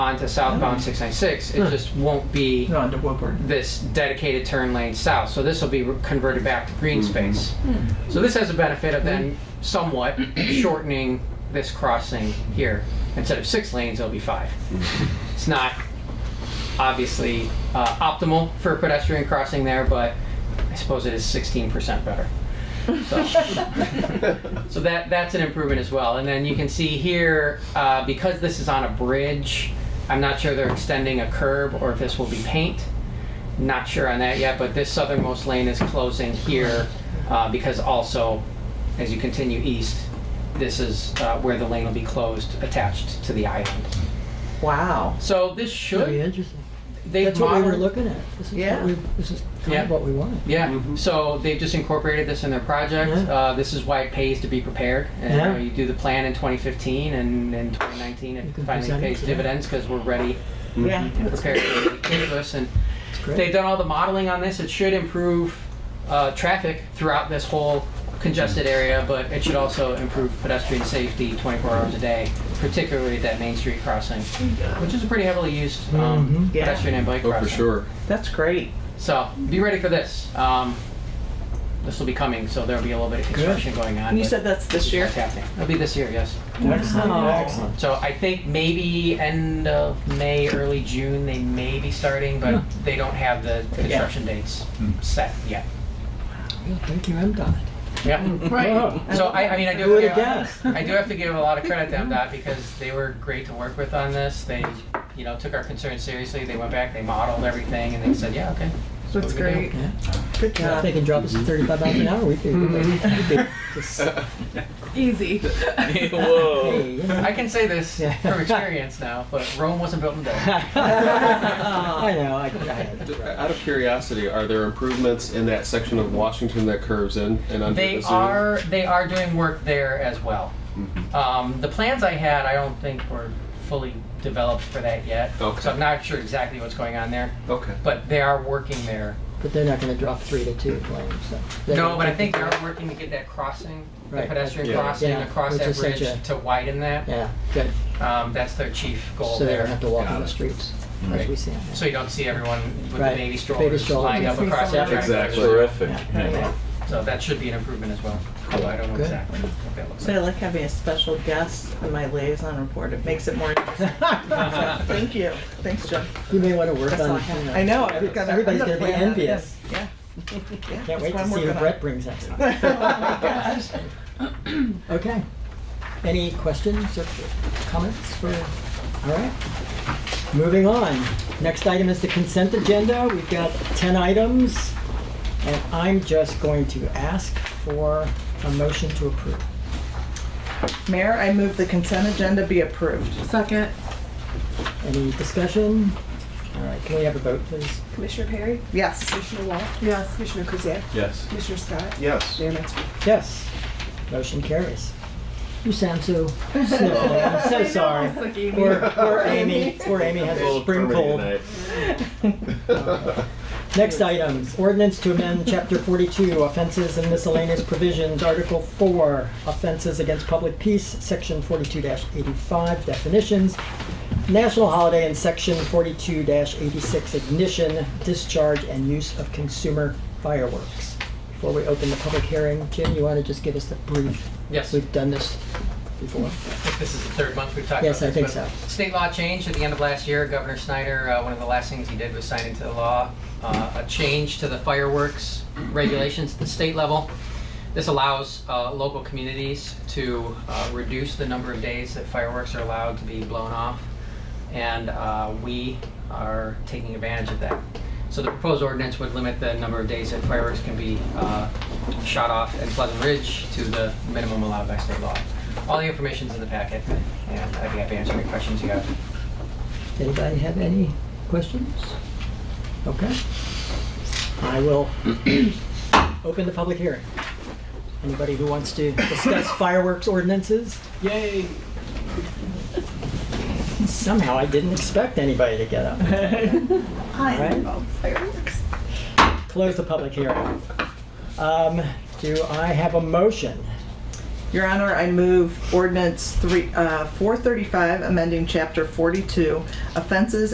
onto southbound 696. It just won't be No, to Woodward. this dedicated turn lane south. So this will be re- converted back to green space. So this has a benefit of then somewhat shortening this crossing here. Instead of six lanes, it'll be five. It's not obviously uh, optimal for a pedestrian crossing there, but I suppose it is 16% better. So, so that that's an improvement as well. And then you can see here uh, because this is on a bridge, I'm not sure they're extending a curb or if this will be paint. Not sure on that yet, but this southernmost lane is closing here uh, because also, as you continue east, this is uh, where the lane will be closed, attached to the island. Wow. So this Very should interesting. they Oh, That's what we were looking at. This is Yeah. what we, this is kind Yeah. of what we wanted. Yeah, so they've just incorporated this in their project. Mm-hmm. Yeah. Uh, this is why it pays to be prepared. And Yeah. you, know, you do the plan in 2015 and in 2019 You it can finally present it pays to them. dividends because we're ready Yeah. and prepared to give this. And It's they've great. done all the modeling on this. It should improve uh, traffic throughout this whole congested Mm-hmm. area, but it should also improve pedestrian safety 24 hours a day, particularly at that Main Street crossing, which is a pretty heavily used um, Mm-hmm. Mhm. Yeah. pedestrian and bike Oh, crossing. for sure. That's great. So be ready for this. Um, this will be coming, so there'll be a little bit of construction going on. And you but said that's this year? it's happening. It'll be this year, yes. Wow. So I think maybe end of May, early June, they may be starting, but they don't have the construction dates set yet. Yeah, Thank you, MDOT. Yeah. Right. So I, I mean, I do. Who would yeah, have guessed? I do have to give a lot of credit to MDOT because they were great to work with on this. They, you know, took our concerns seriously. They went back, they modeled everything, and they said, yeah, okay. That's what we can great. do. Yeah. Good Yeah, If they job. can drop us to thirty-five miles an hour, we could, we could just, Easy. Whoa. hey, you know. I can say this Yeah. from experience now, but Rome wasn't built in a day. I know, I, I had it right. Out of curiosity, are there improvements in that section of Washington that curves in and under They the zoo? are they are doing work there as well. Mm-hmm. Um, the plans I had, I don't think were fully developed for that yet. Okay. So I'm not sure exactly what's going on there, Okay. but they are working there. But they're not gonna drop three to two lanes, so. They're No, gonna but I keep think it- they are working to get that crossing, the Right. pedestrian Yeah. crossing Yeah, across which that is such bridge a- to widen that. Yeah, good. Um, that's their chief goal So they there. don't have to walk Got on the it. streets, Right. as we see on so you don't see everyone with Right. the baby Baby strollers strollers. lined up across that track. Exactly. Terrific. Yeah. So that should be an improvement as well. Although I don't know Good. exactly what that looks So I like. like having a special guest on my liaison report. It makes it more interesting. So, that. Thank you. Thanks, Jim. You may wanna work That's all I on, have. you I know, know. every- I've got everybody's I'm gonna be plan on envious. this. Yeah. Yeah, can't that's what wait to see I'm who working Brett brings us. on. Oh, my gosh. Okay. Any questions or comments for, all right. Moving on. Next item is the consent agenda. We've got 10 items. And I'm just going to ask for a motion to approve. Mayor, I move the consent agenda be approved. Second. Any discussion? All right, can we have a vote, please? Commissioner Perry? Yes. Commissioner Wall? Yes. Commissioner Krzyjak? Yes. Commissioner Scott? Yes. Mayor Metzger? Yes. Motion carries. You sound so sniffly. I'm so sorry. Poor, poor Amy. Poor Amy has a spring cold. Next item, ordinance to amend chapter forty-two, offenses and miscellaneous provisions, article four, offenses against public peace, section forty-two eighty-five, definitions, national holiday and section forty-two eighty-six, ignition, discharge, and use of consumer fireworks. Before we open the public hearing, Jim, you want to just give us the brief? Yes. We've done this before. This is the third month we've talked Yes, about I this, think but State law changed at the end of last year. Governor Snyder, uh, one of the last things he did was sign into the law uh, a change to the fireworks regulations at the state level. This allows uh, local communities to uh, reduce the number of days that fireworks are allowed to be blown off, and uh, we are taking advantage of that. So the proposed ordinance would limit the number of days that fireworks can be uh, shot off in Pleasant Ridge to the minimum allowed by state law. All the information's in the packet, and I'd be happy to answer any questions you have. Anybody have any questions? Okay. I will open the public hearing. Anybody who wants to discuss fireworks ordinances? Yay. Somehow I didn't expect anybody to get up. Hi. Right? Close the public hearing. Um, Do I have a motion Your Honor, I move ordinance three, uh, 435, amending chapter 42, offenses